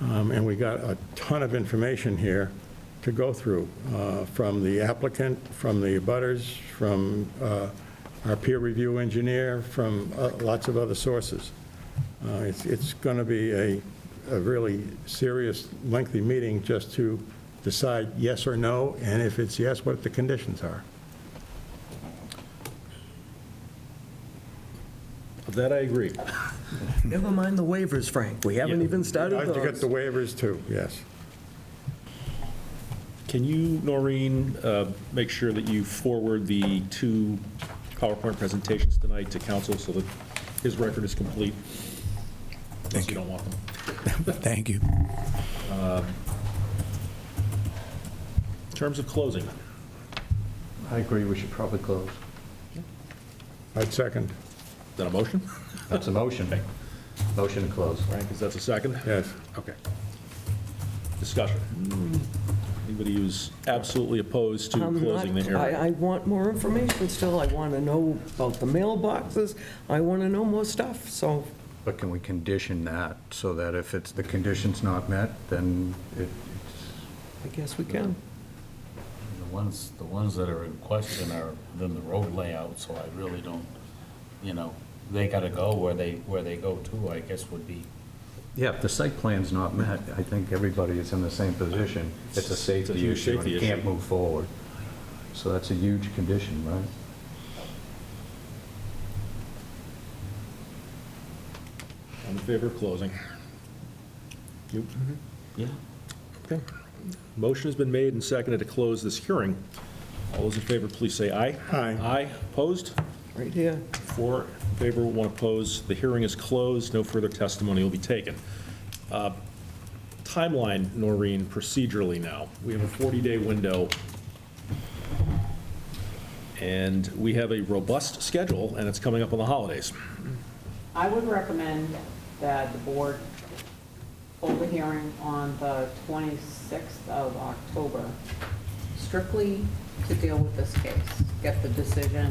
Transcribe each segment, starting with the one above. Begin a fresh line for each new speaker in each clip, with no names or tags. Um, And we got a ton of information here to go through, uh, from the applicant, from the abutters, from uh, our peer review engineer, from uh, lots of other sources. Uh, It's, it's going to be a, a really serious, lengthy meeting just to decide yes or no, and if it's yes, what the conditions are.
That I agree.
Never mind the waivers, Frank. We haven't even started
I have to get the
those.
waivers too, yes.
Can you, Noreen, uh, make sure that you forward the two PowerPoint presentations tonight to council so that his record is complete? Unless you don't want them.
Thank you.
In terms of closing,
I agree, we should probably close.
I'd second,
is that a motion?
That's a motion. Motion to close.
Frank, is that the second?
yes.
Okay. Discussion. Hmm. Anybody who's absolutely opposed to
I'm
closing the
Um, not-
hearing?
I, I want more information still. I want to know about the mailboxes. I want to know more stuff, so
But can we condition that so that if it's, the condition's not met, then it- it's,
I guess we can.
The ones, the ones that are in question are then the road layout, so I really don't, you know, they gotta go where they, where they go to, I guess would be.
yeah, if the site plan's not met, I think everybody is in the same position. It's a
It's a
safety
huge
issue
safety
and can't
issue.
move forward. So that's a huge condition, right?
I'm in favor of closing. You?
Yeah.
Okay. Motion has been made and seconded to close this hearing. All those in favor, please say aye.
Aye.
Aye, opposed?
Right here.
Four in favor, one opposed. The hearing is closed, no further testimony will be taken. Uh, Timeline, Noreen, procedurally now. We have a 40-day window, and we have a robust schedule, and it's coming up on the holidays.
I would recommend that the board hold a hearing on the 26th of October, strictly to deal with this case. Get the decision,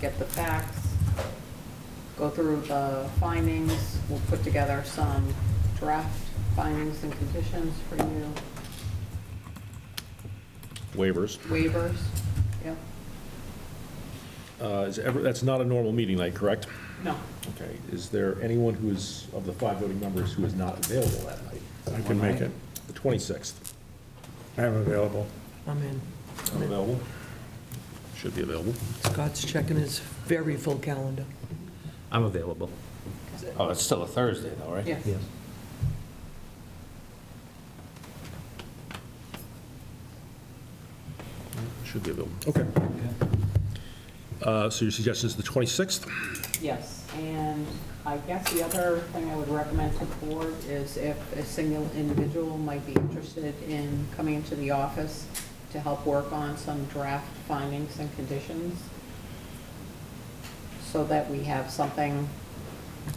get the facts, go through the findings. We'll put together some draft findings and conditions for you,
Waivers.
waivers. Yep.
Uh, is ever- That's not a normal meeting night, correct?
No.
Okay, is there anyone who is, of the five voting members, who is not available that night?
I can make it.
The 26th.
I'm available.
I'm in.
Available? Should be available.
Scott's checking his very full calendar.
I'm available.
Oh, it's still a Thursday though, right?
Yeah.
Yes.
Should be available. Okay. Uh, So your suggestion is the 26th?
Yes, and I guess the other thing I would recommend to the board is if a single individual might be interested in coming into the office to help work on some draft findings and conditions, so that we have something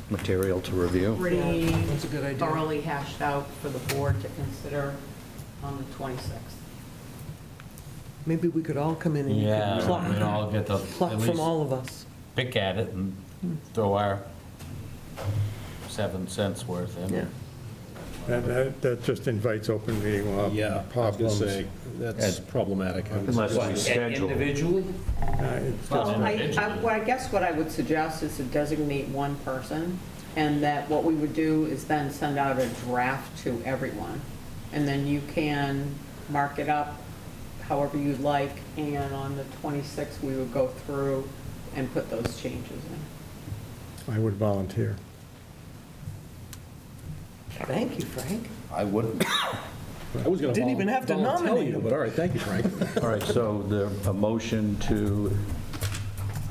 Material to review.
pretty
that's a good idea.
thoroughly hashed out for the board to consider on the 26th.
Maybe we could all come in and you
Yeah,
could pluck,
we all get to
pluck
at
from
least
all of us.
pick at it and throw our seven cents worth in.
Yeah.
That- That, that just invites open meeting law
I was going to
problems.
say, that's problematic. I would
Unless we
suggest-
schedule.
Uh, it's-
Well, I, I-
individually.
well, I guess what I would suggest is to designate one person, and that what we would do is then send out a draft to everyone. And then you can mark it up however you'd like, and on the 26th, we would go through and put those changes in.
I would volunteer.
Thank you, Frank.
I wouldn't.
I was going to
Didn't even have to nominate him.
But all right, thank you, Frank.
All right, so the, a motion to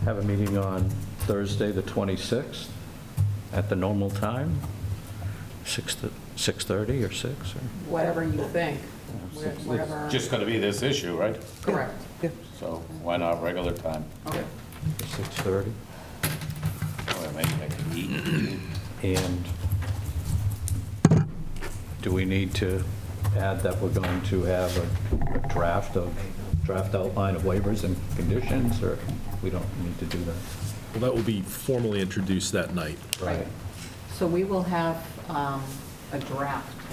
have a meeting on Thursday, the 26th, at the normal time, 6, to- 6:30 or 6, or?
Whatever you think, whatever.
Just gonna be this issue, right?
Correct.
Yeah.
So why not regular time?
Okay.
6:30,
Or maybe I can eat.
and do we need to add that we're going to have a a draft of, draft outline of waivers and conditions, or we don't need to do that?
Well, that will be formally introduced that night.
Right. So we will have um, a draft